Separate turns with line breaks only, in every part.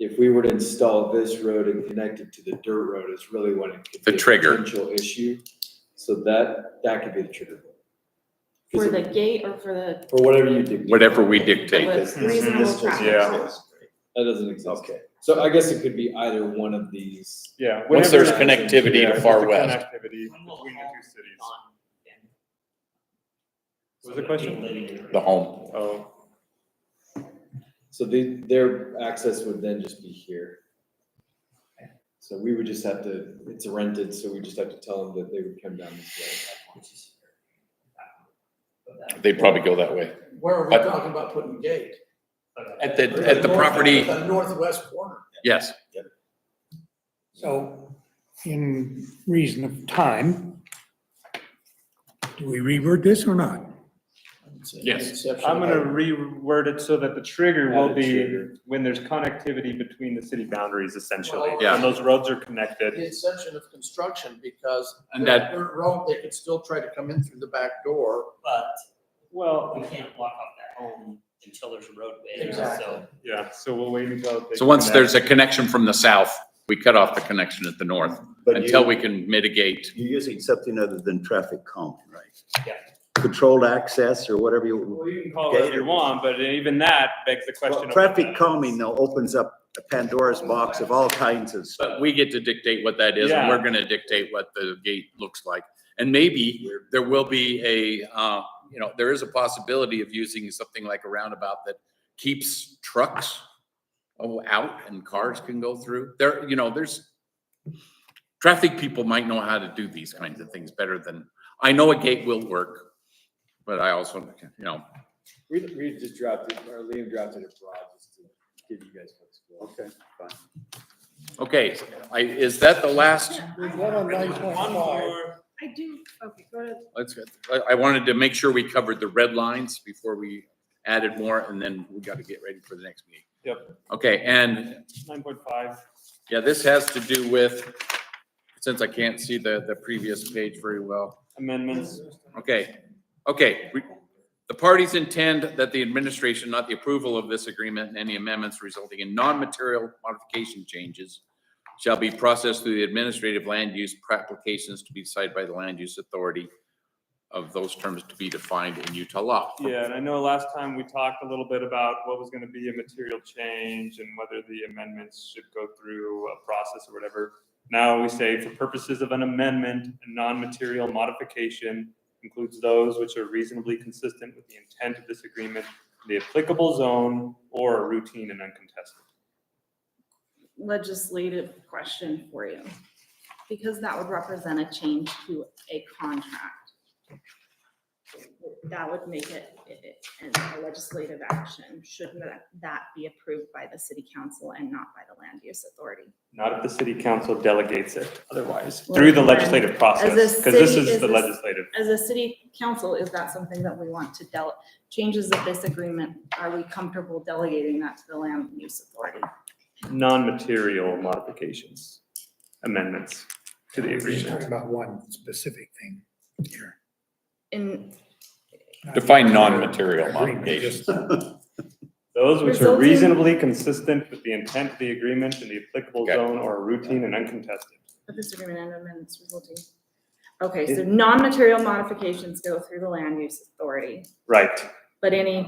if we were to install this road and connect it to the dirt road is really when it could
The
be a
trigger.
potential issue. So that, that could be the trigger.
For the gate or for the
Or whatever you dictate.
Whatever we dictate.
This- this-
Reasonable
this doesn't
traffic.
Yeah.
exist. That doesn't exist. Okay. So I guess it could be either one of these.
Yeah.
Once
whenever
there's
that-
connectivity to
yeah, just
Far
the
West.
Connectivity between the two cities. What was the question?
the home.
Oh,
So the, their access would then just be here. So we would just have to, it's rented, so we just have to tell them that they would come down this way.
They'd probably go that way.
Where are we
But-
talking about putting the gate?
At the, at the
north-
property,
The northwest corner.
yes.
So in reason of time, do we reword this or not?
Yes.
Exception.
I'm gonna reword it so that the trigger will
Added
be
trigger.
when there's connectivity between the city boundaries essentially.
Well-
Yeah.
And those roads are connected.
The exception of construction because.
And
they're-
that-
They're road, they could still try to come in through the back door.
But
Well,
we can't block off that home until there's a roadway,
Exactly.
so.
yeah, so we'll wait until. they
So once there's a
connect.
connection from the south, we cut off the connection at the north
But
until
you-
we can mitigate.
You're using something other than traffic calm, right?
Yeah.
Controlled access or whatever you,
Well, you can call it whatever you want, but even that begs the question.
Well,
of what
traffic
that-
calming though opens up a Pandora's box of all kinds of stuff.
But we get to dictate what that is and
Yeah.
we're gonna dictate what the gate looks like. And maybe there will be a, uh, you know, there is a possibility of using something like a roundabout that keeps trucks oh, out and cars can go through. There, you know, there's traffic people might know how to do these kinds of things better than, I know a gate will work, but I also, you know,
We, we just dropped it, or Liam dropped it abroad just to give you guys flexibility.
Okay, fine.
okay, I, is that the last?
There's one on nine point
One
five.
more,
I do, okay, go to
Let's, I, I wanted to make sure we covered the red lines before we added more, and then we gotta get ready for the next meeting.
Yep.
Okay, and,
Nine point five.
yeah, this has to do with, since I can't see the, the previous page very well.
amendments.
Okay, okay. we- The parties intend that the administration, not the approval of this agreement and any amendments resulting in non-material modification changes shall be processed through the administrative land use applications to be decided by the land use authority of those terms to be defined in Utah law.
Yeah, and I know last time we talked a little bit about what was gonna be a material change and whether the amendments should go through a process or whatever. Now we say for purposes of an amendment, a non-material modification includes those which are reasonably consistent with the intent of this agreement, the applicable zone, or are routine and uncontested.
legislative question for you, because that would represent a change to a contract. That would make it, it- it- and a legislative action, shouldn't that- that be approved by the city council and not by the land use authority?
Not if the city council delegates it otherwise,
Well,
through the
then,
legislative process,
as a
because this
city-
is
is
the
this-
legislative.
As a city council, is that something that we want to del, changes of this agreement, are we comfortable delegating that to the land use authority?
non-material modifications, amendments to the agreement.
About one specific thing here.
In
Define non-material
Agreement,
modifications.
just-
Those which are
Resulting-
reasonably consistent with the intent of the agreement and the applicable
Okay.
zone or routine and uncontested.
But this agreement and amendments resulting. Okay, so non-material modifications go through the land use authority,
Right,
but any,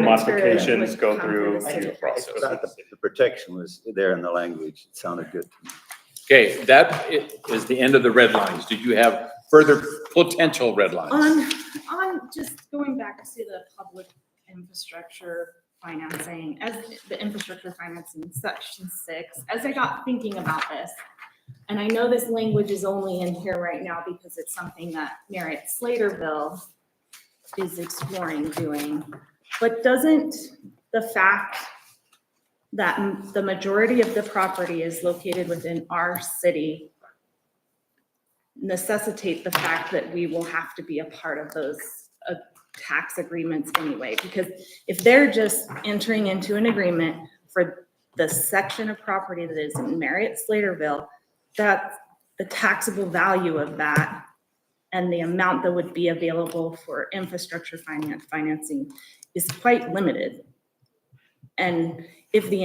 Material
modifications
would
go
come
through.
through the city
due process.
I thought The the protection was there in the language. It sounded good. to me.
Okay, that i- is the end of the red lines. Do you have further potential red lines?
on, on, just going back to the public infrastructure financing, as the infrastructure financing section six, as I got thinking about this, and I know this language is only in here right now because it's something that Merritt Slaterville is exploring doing, but doesn't the fact that m- the majority of the property is located within our city necessitate the fact that we will have to be a part of those uh, tax agreements anyway? Because if they're just entering into an agreement for the section of property that is in Marriott Slaterville, that the taxable value of that and the amount that would be available for infrastructure finance, financing is quite limited. And if the